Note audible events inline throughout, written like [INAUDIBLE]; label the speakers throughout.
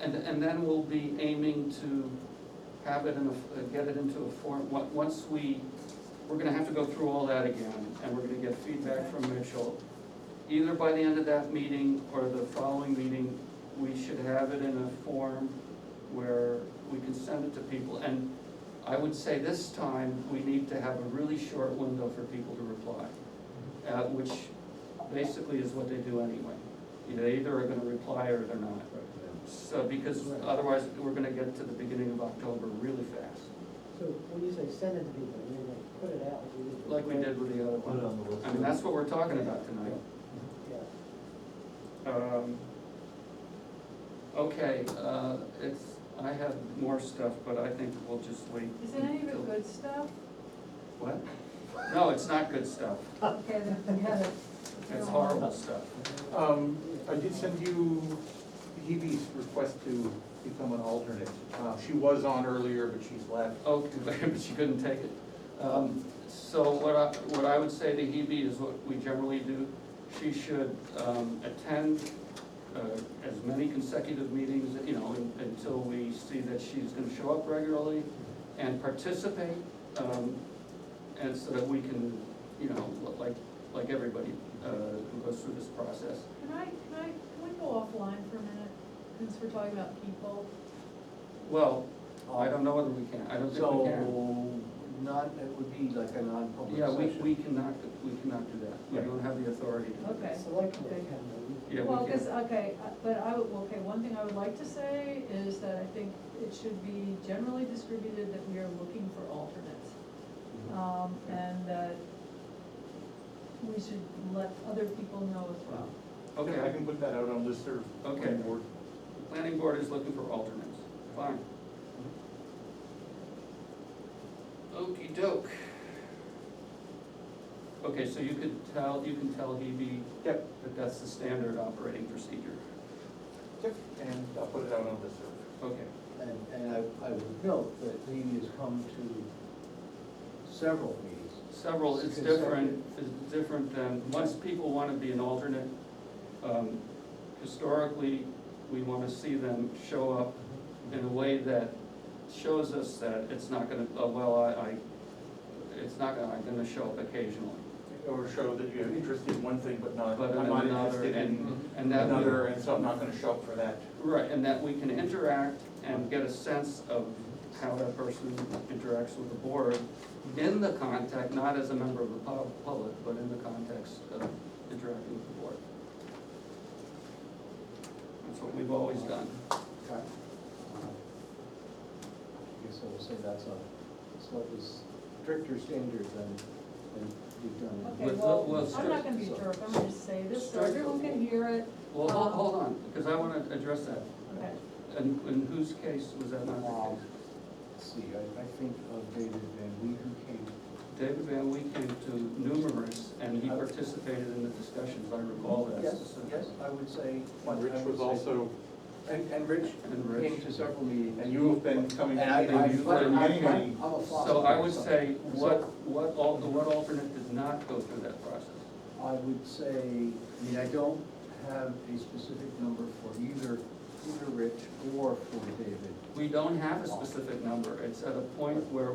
Speaker 1: And, and then we'll be aiming to have it in a, get it into a form, on- once we, we're gonna have to go through all that again, and we're gonna get feedback from Mitchell. Either by the end of that meeting or the following meeting, we should have it in a form where we can send it to people. And I would say this time, we need to have a really short window for people to reply, uh, which basically is what they do anyway. They either are gonna reply or they're not. So, because otherwise, we're gonna get to the beginning of October really fast,
Speaker 2: So when you say send it to people, you mean like put it out? you just-
Speaker 1: like we did with the other
Speaker 3: Put it
Speaker 1: one.
Speaker 3: on the list.
Speaker 1: I mean, that's what we're talking about tonight.
Speaker 2: Yeah.
Speaker 1: Um, Okay, uh, it's, I have more stuff, but I think we'll just wait.
Speaker 4: Is it any of
Speaker 1: until-
Speaker 4: it good stuff?
Speaker 1: What? No, it's not good stuff.
Speaker 4: Okay, then, yeah, that's.
Speaker 1: It's horrible stuff.
Speaker 3: Um, I did send you Hebe's request to become an alternate. Uh, she was on earlier, but she's left.
Speaker 1: Okay, [LAUGHS] but she couldn't take it. Um, So what I, what I would say to Hebe is what we generally do, she should um, attend uh, as many consecutive meetings, you know, un- until we see that she's gonna show up regularly and participate, um, and so that we can, you know, like, like everybody uh, who goes through this process.
Speaker 4: Can I, can I, can we go offline for a minute, since we're talking about people?
Speaker 1: Well, Oh, I don't know whether we can, I don't think we can.
Speaker 5: So, not, it would be like a non-public
Speaker 1: Yeah, we,
Speaker 5: session.
Speaker 1: we cannot, we cannot do that, we
Speaker 5: Right.
Speaker 1: don't have the authority to do that.
Speaker 4: Okay.
Speaker 2: Select board
Speaker 4: Okay.
Speaker 2: can, though.
Speaker 1: Yeah,
Speaker 4: Well,
Speaker 1: we
Speaker 4: because,
Speaker 1: can.
Speaker 4: okay, uh, but I, would- okay, one thing I would like to say is that I think it should be generally distributed that we are looking for alternates.
Speaker 1: Mm-hmm.
Speaker 4: Um, and that we should let other people know as well.
Speaker 1: Okay,
Speaker 3: I can put that out on listserv.
Speaker 1: Okay.
Speaker 3: Board.
Speaker 1: the planning board is looking for alternates, fine. Okey doke. Okay, so you could tell, you can tell Hebe
Speaker 3: Yep,
Speaker 1: that that's the standard operating procedure.
Speaker 3: yep, and I'll put it out on listserv.
Speaker 1: Okay,
Speaker 5: And, and I, I would note that Lee has come to several meetings.
Speaker 1: several, it's different, it's different than, once people want to be an alternate, um, historically, we want to see them show up in a way that shows us that it's not gonna, oh, well, I, I, it's not gonna, I'm gonna show up occasionally.
Speaker 3: Or show that you have interest in one thing, but not,
Speaker 1: But in
Speaker 3: I'm not
Speaker 1: another,
Speaker 3: interested in
Speaker 1: and, and that,
Speaker 3: another,
Speaker 1: we-
Speaker 3: and so I'm not gonna show up for that.
Speaker 1: right, and that we can interact and get a sense of how that person interacts with the board in the context, not as a member of the pub- public, but in the context of interacting with the board. That's what we've always done.
Speaker 5: Okay. I guess I will say that's a slightly stricter standard than, than you've done.
Speaker 4: Okay,
Speaker 1: Let's-
Speaker 4: well,
Speaker 1: let's
Speaker 4: I'm
Speaker 1: just-
Speaker 4: not gonna be a jerk, I'm gonna just say this, so
Speaker 1: Strike-
Speaker 4: everyone can hear it,
Speaker 1: Well, hold,
Speaker 4: Um,
Speaker 1: hold on, because I wanna address that.
Speaker 4: okay.
Speaker 1: In, in whose case was that not the
Speaker 5: Um,
Speaker 1: case?
Speaker 5: Let's see, I, I think of David Van Weaver came,
Speaker 1: David Van Lee came to numerous, and he participated in the discussions, I recall that.
Speaker 5: Uh, yes, yes, I would say. I
Speaker 3: And Rich was
Speaker 5: would say-
Speaker 3: also,
Speaker 5: And, and Rich
Speaker 1: And Rich.
Speaker 5: came to several meetings.
Speaker 3: and you have been coming
Speaker 5: And
Speaker 3: to
Speaker 5: I, I,
Speaker 3: meetings for many, many.
Speaker 5: I'm a foster.
Speaker 1: So I would
Speaker 5: so-
Speaker 1: say, what, what, al- what alternate did not go through that process?
Speaker 5: I would say, I mean, I don't have a specific number for either, either Rich or for David.
Speaker 1: We don't have a specific number, it's at a point where,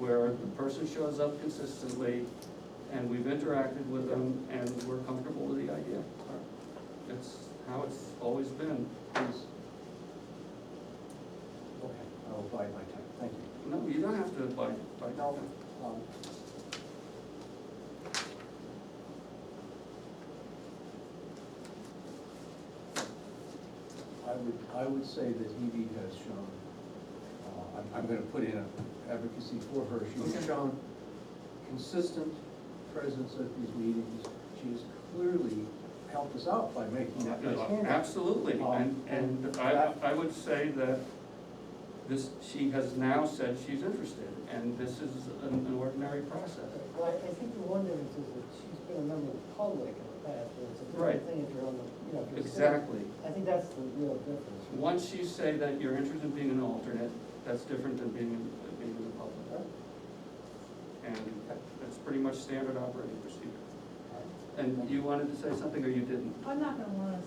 Speaker 1: where the person shows up consistently, and we've interacted with them, and we're comfortable with the idea. It's how it's always been.
Speaker 5: Please. Okay, I'll bide my time, thank you.
Speaker 1: No, you don't have to abide by.
Speaker 5: No, um, I would, I would say that Hebe has shown, uh, I'm, I'm gonna put in an advocacy for her, she has
Speaker 1: Okay.
Speaker 5: shown consistent presence at these meetings, she has clearly helped us out by making that nice handout.
Speaker 1: Absolutely, and, and I, I would say that this, she has now said she's interested, and this is an an ordinary process.
Speaker 2: Well, I, I think the one difference is that she's been a member of the public in the past, and it's a
Speaker 1: Right.
Speaker 2: different thing if you're on the, you know, if you're. sitting-
Speaker 1: Exactly.
Speaker 2: I think that's the real difference.
Speaker 1: Once you say that you're interested in being an alternate, that's different than being, than being in the public. And that's pretty much standard operating procedure. And you wanted to say something, or you didn't?
Speaker 4: I'm not gonna wanna